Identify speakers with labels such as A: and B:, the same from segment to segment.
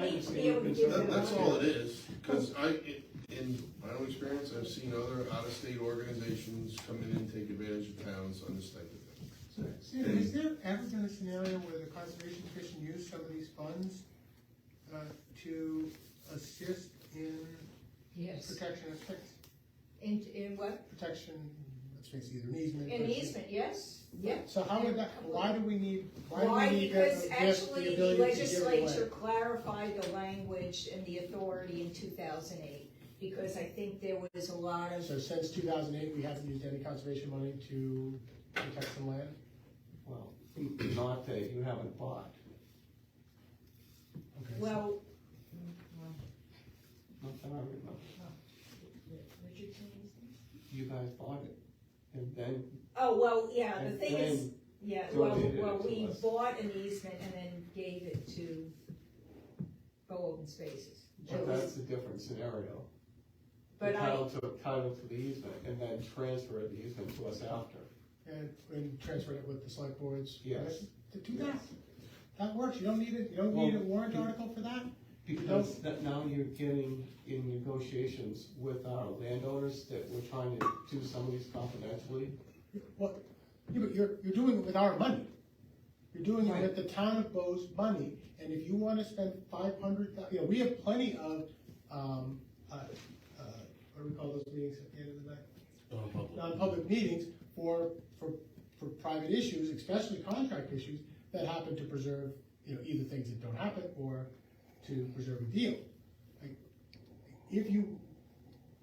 A: be able to give
B: That,
A: them.
B: that's all it is, cause I, in- in my own experience, I've seen other out-of-state organizations come in and take advantage of towns on this type of thing.
C: So, Sam, has there ever been a scenario where the Conservation Commission used some of these funds uh, to assist in
A: Yes.
C: protection aspects,
A: In, in what?
C: protection, let's face it, either an easement.
A: In
C: or-
A: easement, yes, yes.
C: So how would that, why do we need, why
A: Why?
C: do we need that,
A: Because
C: yes, the
A: actually, the
C: ability to give it away?
A: legislature clarified the language and the authority in two thousand eight, because I think there was a lot of,
C: So since two thousand eight, we haven't used any conservation money to protect some land?
D: Well, not that you haven't bought,
C: Okay. so-
A: well,
D: not that I remember. You guys bought it, and then,
A: oh, well, yeah, the
D: and
A: thing is,
D: then,
A: Yeah, well,
D: donated it
A: well,
D: to
A: we
D: us.
A: bought an easement and then gave it to Go Open Spaces. It
D: but
A: was-
D: that's a different scenario. The
A: But I,
D: title took title to the easement, and then transferred the easement to us after.
C: And, and transfer it with the select boards?
D: Yes.
C: To do that, that works, you don't need it, you don't
D: Well,
C: need a warrant
D: you-
C: article for that?
D: Because that now you're getting in negotiations with our landowners that we're trying to do some of these confidentially.
C: Well, yeah, but you're, you're doing it with our money. You're doing it
D: Right.
C: with the town of Bo's money, and if you wanna spend five hundred, you know, we have plenty of, um, uh, uh, what do we call those meetings at the end of the night? non-public meetings for, for, for private issues, especially contract issues, that happen to preserve, you know, either things that don't happen or to preserve a deal. Like, If you,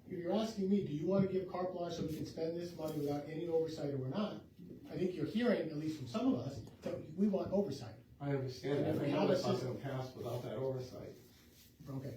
C: if you're asking me, do you wanna give carte blanche so we can spend this money without any oversight or not? I think you're hearing, at least from some of us, that we want oversight,
D: I understand that, I know it's not gonna pass without that oversight.
C: okay?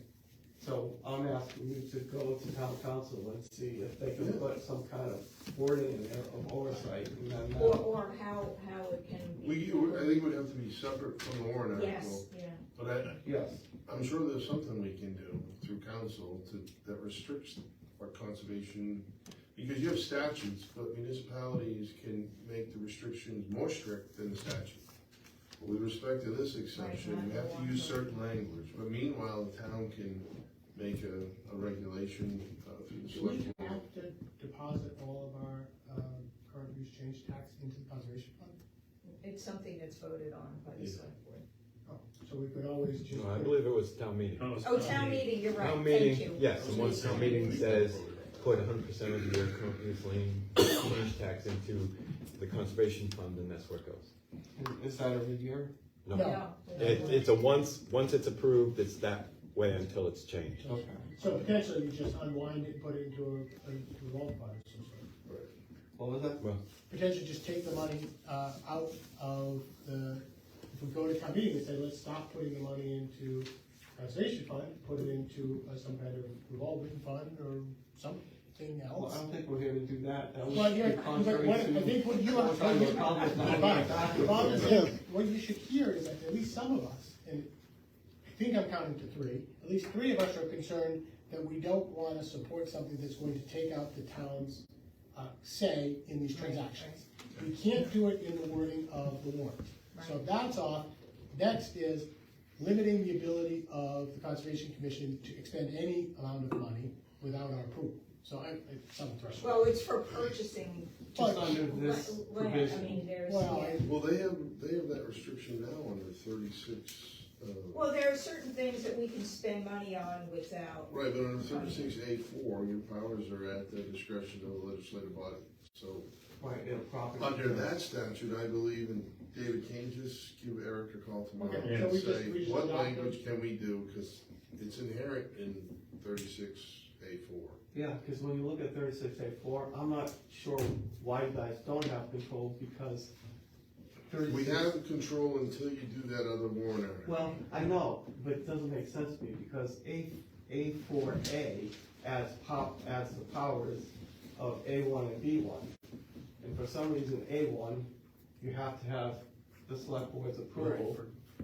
D: So I'm asking you to go to town council and see if they can put some kind of wording in there of oversight and then. uh,
A: or, or how, how it can be.
B: We, I think it would have to be separate from the warrant
A: Yes,
B: article,
A: yeah,
B: but I,
D: Yes,
B: I'm sure there's something we can do through council to, that restricts our conservation, because you have statutes, but municipalities can make the restrictions more strict than the statute. With respect to this exception, you have to use certain language, but meanwhile, the town can make a, a regulation uh, through the
C: Do we
B: select. board.
C: have to deposit all of our, um, current use change tax into the conservation fund?
A: it's something that's voted on by the
B: Yeah.
A: select board.
C: Oh, So we could always just.
E: No, I believe it was town meeting.
A: Oh, town meeting, you're right,
E: Town
A: thank
E: meeting,
A: you.
E: yes, and once town meeting says, put hundred percent of your current use lien, change tax into the conservation fund, and that's where it goes.
D: Is- is that every year?
C: No.
E: No,
A: Yeah.
E: it, it's a once, once it's approved, it's that way until it's changed.
D: Okay.
C: So potentially you just unwind it, put it into a, a revolving fund or something.
D: What was that?
C: Potentially just take the money, uh, out of the, if we go to town meeting and say, let's stop putting the money into conservation fund, put it into uh, some kind of revolving fund or something
D: Well, I
C: else.
D: don't think we're here to do that. That
C: Well,
D: would
C: yeah,
D: be
C: but
D: contrary
C: what,
D: to.
C: I think what you,
D: We're trying to accomplish not going
C: Bob,
D: backwards.
C: Bob is saying, what you should hear is that at least some of us, and I think I'm counting to three, at least three of us are concerned that we don't wanna support something that's going to take out the town's, uh, say in these transactions. We can't do it in the wording of the warrant. So if that's off, next is limiting the ability of the Conservation Commission to expend any amount of money without our approval. So I, it's some threshold.
A: Well, it's for purchasing
D: Just under this
A: la- land, I mean,
D: provision.
A: there's,
C: Well,
A: yeah.
C: I-
B: Well, they have, they have that restriction now under thirty-six, uh,
A: Well, there are certain things that we can spend money on without,
B: Right, but under thirty-six A four, your powers are at the discretion of the legislative body. So,
D: Right, in a property.
B: under that statute, I believe, and David Kane, just give Eric a call tomorrow
C: Okay,
B: and
C: so we just-
B: say,
C: we just
B: what
C: adopt it?
B: language can we do? Because it's inherent in thirty-six A four.
D: Yeah, because when you look at thirty-six A four, I'm not sure why you guys don't have control because thirty-six.
B: We have control until you do that other warrant article.
D: Well, I know, but it doesn't make sense to me because A, A four A adds pop, adds the powers of A one and B one. And for some reason, A one, you have to have the select board's approval,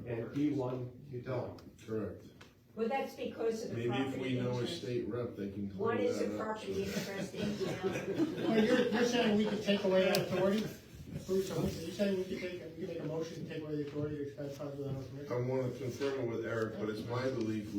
D: and B one, you don't.
B: Correct.
A: well, that's because of the
B: Maybe if we
A: property
B: know a
A: interest.
B: state rep, they can clear
A: What is the
B: that up.
A: property interest in town?
C: Well, you're, you're saying we could take away that authority? Bruce, are you saying we could take, we could make a motion to take away the authority to expend funds without our permission?
B: I wanna confirm it with Eric, but it's my belief